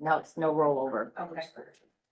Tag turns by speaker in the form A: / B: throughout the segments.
A: Now it's no rollover.
B: Okay.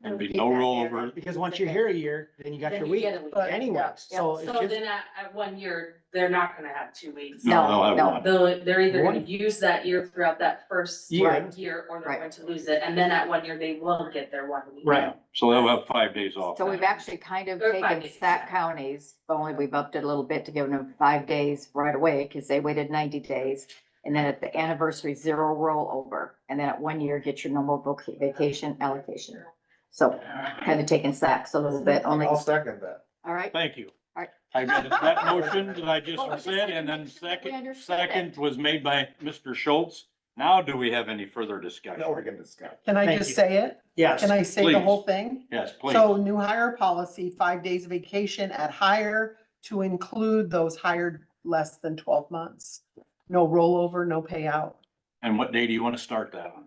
C: There'd be no rollover.
D: Because once you're here a year, then you got
E: Then
D: your
E: you
D: week
E: get a week.
A: But-
D: anyway,
A: Yeah,
D: so it's
E: So
D: just,
E: then at, at one year, they're not gonna have two weeks.
A: No,
C: No, they'll have
A: no.
C: one.
E: They'll, they're either gonna
D: One.
E: use that year throughout that first
D: Year.
E: like, year, or they're
A: Right.
E: going to lose it, and then at one year, they will get their one week.
D: Right.
C: So they'll have five days off.
A: So we've
C: then.
A: actually kind of
E: Or five
A: taken
E: days,
A: stack
E: yeah.
A: counties, but only we've upped it a little bit to give them five days right away, because they waited ninety days. And then at the anniversary, zero rollover, and then at one year, get your normal voc- vacation allocation. So kind of taking stacks a little bit only,
F: I'll
A: all
F: second that.
A: right?
C: Thank you.
A: Alright.
C: I got that motion that I just said, and then
A: We
C: second,
A: understood it.
C: second was made by Mr. Schultz. Now do we have any further
F: Now
C: discussion?
F: we're gonna discuss.
G: Can I
D: Thank
G: just
D: you.
G: say it?
D: yes.
G: Can I say the
C: Please.
G: whole thing?
C: Yes, please.
G: So new hire policy, five days of vacation at hire to include those hired less than twelve months. No rollover, no payout.
C: And what day do you want to start that on?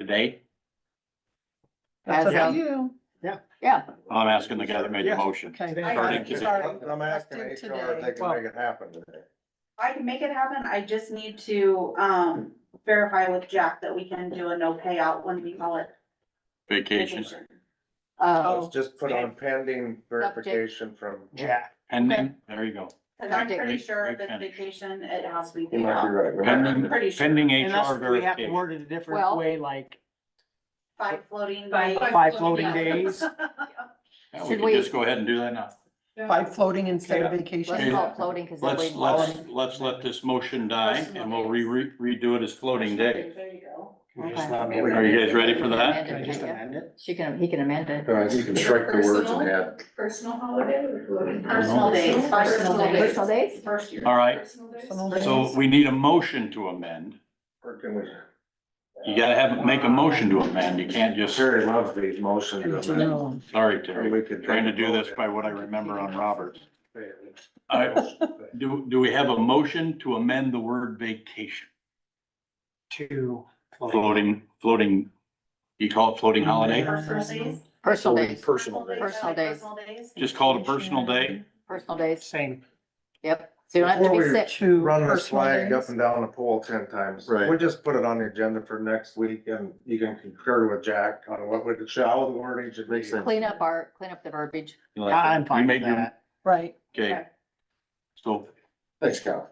C: Today?
G: That's
A: As
G: up
A: of-
G: to you.
A: Yeah,
C: I'm asking the guy that made the
D: Yes.
C: motion.
G: Okay.
D: Today.
G: I got it.
C: Starting
G: Sorry.
F: I'm asking
G: Effective
F: HR if they
G: today.
F: can make it happen today.
B: I can make it happen. I just need to, um, verify with Jack that we can do a no payout when we call it.
C: Vacations
A: uh,
F: Let's just put on pending verification from.
D: Jack.
C: pending, there you go.
B: Cause I'm
A: Okay.
B: pretty sure if
C: Great
B: it's
C: finish.
B: vacation, it has to be
F: You
B: paid
F: might be
B: out.
F: right.
C: Pending,
B: Pretty sure.
C: pending
D: Unless
C: HR
D: we have to
C: verification.
D: word it a different
A: Well-
D: way, like
B: Five floating
E: Five-
B: days.
D: five floating
E: Yeah.
D: days.
C: Yeah, We
A: Should
C: can
A: we-
C: just go ahead and do that now.
G: Five floating instead of
A: let's
G: vacation.
A: call it floating, because that way.
C: Let's, let's, let's let this motion die and we'll re, re- redo it as floating day.
B: There you go.
C: Are you guys ready for that?
D: Can I just amend it?
A: She can, he can amend it.
F: Guys, you can strike the words and add.
H: Personal holiday or floating?
B: Personal days, personal days.
A: Personal days?
B: First year.
C: All right,
H: Personal days?
G: Personal
C: so we need a motion to amend.
F: Or can we-
C: You gotta have, make a motion to amend. You can't just,
F: Terry loves these motions.
G: Good to know.
C: sorry,
F: Or
C: Terry.
F: we could-
C: Trying to do this by what I remember on Roberts. All right, do, do we have a motion to amend the word vacation?
D: To.
C: Floating, floating, you call it floating holiday?
B: Personal days.
A: Personal days,
F: Personal days.
A: Personal days.
C: Just call it a personal day?
A: personal days,
D: Same.
A: yep. So you don't have to
F: Before
A: be
F: we-
A: sick.
G: Two
F: Run this
G: personal
F: flag
G: days.
F: up and down the pole ten times.
C: Right.
F: We'll just put it on the agenda for next week and you can concur with Jack on what would, how the wording should be.
A: Clean up our, clean up the verbiage.
C: You
D: I-
C: like that?
D: I'm
C: You
D: fine with
C: made your-
D: that.
G: Right.
C: Okay. So
F: Thanks, Cal.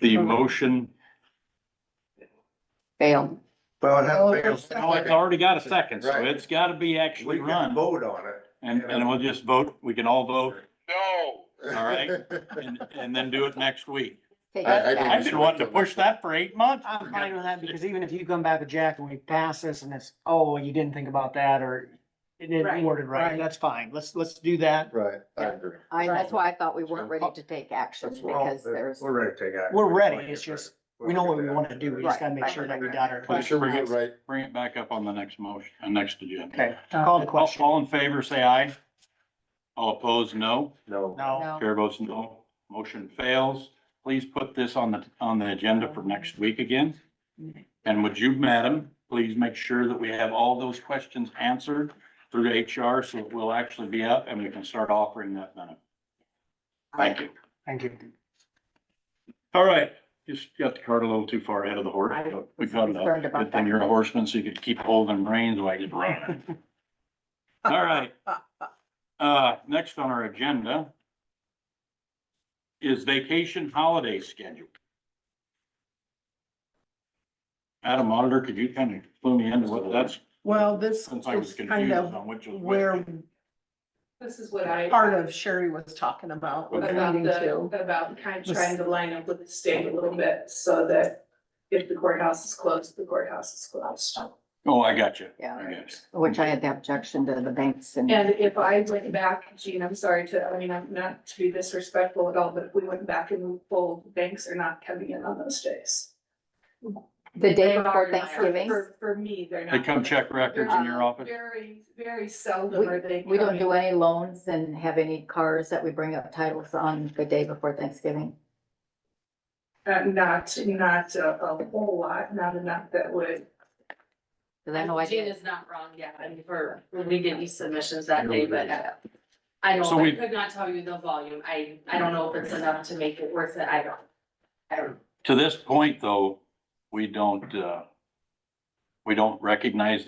C: the motion,
A: Fail.
F: Well, it
G: Oh,
F: has.
G: first-
C: oh, it's already got a second, so it's gotta be
F: We
C: actually
F: can
C: run.
F: vote on it.
C: And, and we'll just vote, we can all vote All right. and, and then do it next week.
A: Take
F: I- I
A: it
C: I've
A: back.
C: been wanting to push that for eight months.
D: I'm fine with that because even if you come back with Jack and we pass this and it's, oh, you didn't think about that or it didn't
B: Right.
D: worded right,
G: Right.
D: that's fine. Let's, let's do that.
F: Right, I agree.
A: I, that's why I thought we weren't ready to take action
F: That's wrong.
A: because there's,
F: We're ready to take action.
D: We're ready, it's just- We know what we want to do. We just
A: Right,
D: gotta make
A: right,
D: sure that
A: right,
D: we
A: right.
D: got our
C: Make
D: questions.
C: sure we get
F: right.
C: Bring it back up on the next motion, uh, next agenda.
D: Okay, call the
C: All,
D: question.
C: all in favor, say aye. All opposed, no.
F: No.
D: No,
A: no,
C: Chair votes no. Motion fails. Please put this on the, on the agenda for next week again. And would you, madam, please make sure that we have all those questions answered through HR so it will actually be up and we can start offering that benefit. Thank you.
D: thank you.
C: All right, just got the cart a little too far ahead of the horse. but We caught it
A: Concerned
C: up.
A: about
C: Good thing
A: that.
C: you're a horseman, so you could keep holding reins while you're running. All right. Uh, next on our agenda is vacation holiday schedule. Adam Auditor, could you kind of clue me into what that's,
G: Well, this
C: since I was
G: is kind
C: confused
G: of
C: on which was
G: where
C: which.
H: This is what I,
G: part of Sherry was talking about. was
H: about
G: needing to.
H: the, about kind of trying to line up with the state a little bit so that if the courthouse is closed, the courthouse is closed.
C: Oh, I got you.
A: Yeah.
C: I got you.
A: which I had the objection to the banks and
H: And if I went back, Gene, I'm sorry to, I mean, I'm not to be disrespectful at all, but if we went back and polled, banks are not coming in on those days.
A: the day before
E: Robert and I are-
A: Thanksgiving,
H: For, for me, they're not.
C: They come
H: coming.
C: check records in your office?
H: Very, very seldom are they.
A: we don't
H: coming.
A: do any loans and have any cars that we bring up titles on the day before Thanksgiving.
H: Uh, Not, not a a whole lot, not enough that would
A: Cause I know I
E: Gene
A: did.
E: is not wrong, yeah, I mean, for, we get these submissions that day, but uh, I
C: So
E: don't, I
C: we-
E: could not tell you the volume, I, I don't know if it's enough to make it worth it, I don't. I don't.
C: To this point, though, we don't, uh, we don't recognize